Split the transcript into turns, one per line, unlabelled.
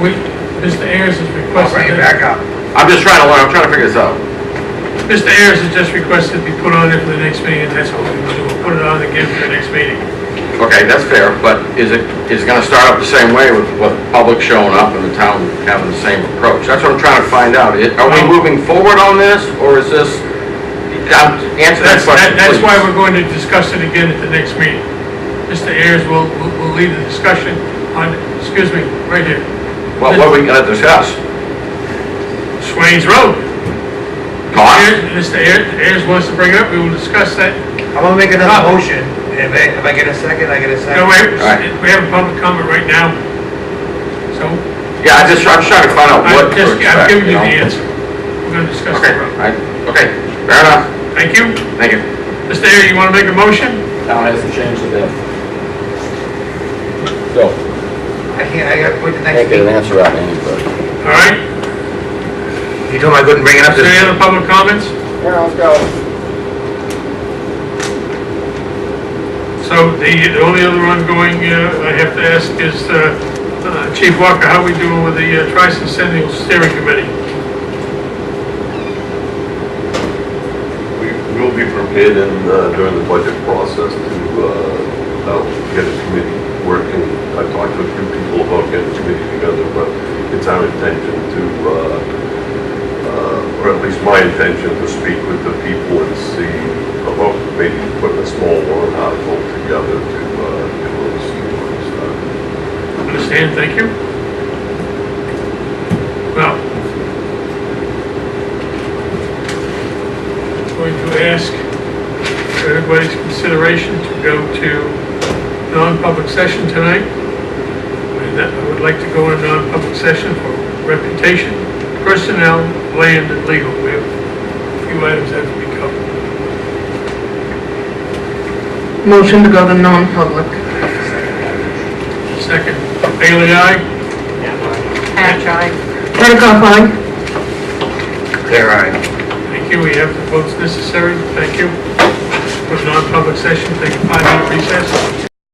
we, Mr. Ayers has
I'll bring
requested,
it
that-
back up.
I'm just trying to learn, I'm trying to figure this out.
Mr. Ayers has just requested be put on there for the next meeting, and that's what we're gonna do, we'll put it on again for the next meeting.
Okay, that's fair, but is it, is it gonna start up the same way with, with public showing up and the town having the same approach? That's what I'm trying to find out. It- Are we
Well-
moving forward on this, or is this, um,
That's,
answer that
that-
question,
that's why
please.
we're going to discuss it again at the next meeting. Mr. Ayers will, will- will lead the discussion on, excuse me, right here,
What, what are we gonna discuss?
Swains Road.
Cost?
Ayers- Mr. Ayers, Ayers wants to bring it up, we will discuss that.
I'm gonna make another motion, and if I, if I get a second, I get a second.
No, wait,
Alright.
we have a public comment right now, so
Yeah, I just, I'm trying to find out what
I'm
to
just, I'm
expect,
giving
you
you
know?
the answer. We're gonna discuss
Okay,
the road.
I, okay, fair enough,
Thank you.
thank you.
Mr. Ayers, you wanna make a motion?
Town hasn't changed a bit. So,
I can't, I gotta wait the
can't
next
get an
meeting.
answer out of anybody.
All right,
You told me I couldn't bring it up
is there
this.
any other public comments?
Yeah, let's go.
So the the only other ongoing, uh, I have to ask is, uh, uh, Chief Walker, how we doing with the uh, tricentennial steering committee?
We will be prepared and uh, during the budget process to uh, help get a committee working. I talked to a few people about getting a committee together, but it's our intention to, uh, uh, or at least my intention, to speak with the people and see about maybe putting a small warrant article together to uh, get a little sequence done.
Understand, thank you. Well, going to ask for everybody's consideration to go to non-public session tonight. And that- I would like to go in non-public session for reputation, personnel, land, and legal. We have a few items that have to be covered.
Motion to go to non-public.
Second, Bailey, aye?
Hatch, aye. Petticoff, aye.
There, I.
Thank you, we have the votes necessary, thank you. For non-public session, take a five-minute recess.